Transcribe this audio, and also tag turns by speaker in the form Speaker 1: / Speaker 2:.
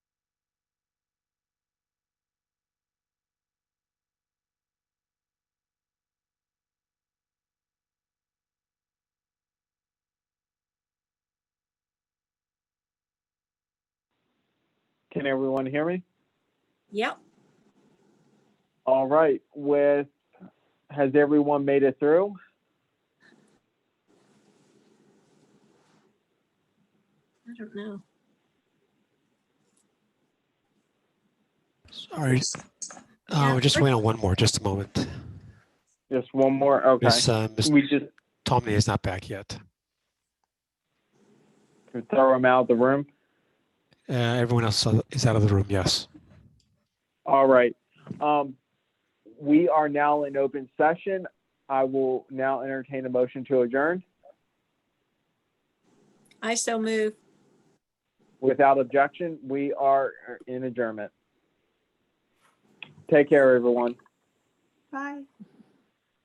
Speaker 1: Can everyone hear me?
Speaker 2: Yep.
Speaker 1: All right, with, has everyone made it through?
Speaker 2: I don't know.
Speaker 3: Sorry.
Speaker 2: Yeah,
Speaker 3: Oh, we just
Speaker 2: we're-
Speaker 3: wait on one more, just a moment.
Speaker 1: Just one more, okay.
Speaker 3: Miss, uh, Miss
Speaker 1: We just
Speaker 3: Tomney is not back yet.
Speaker 1: throw them out of the room.
Speaker 3: Uh, everyone else is out of the room, yes.
Speaker 1: All right. Um, we are now in open session. I will now entertain a motion to adjourn
Speaker 2: I so move.
Speaker 1: without objection. We are in adjournment. Take care, everyone.
Speaker 2: Bye.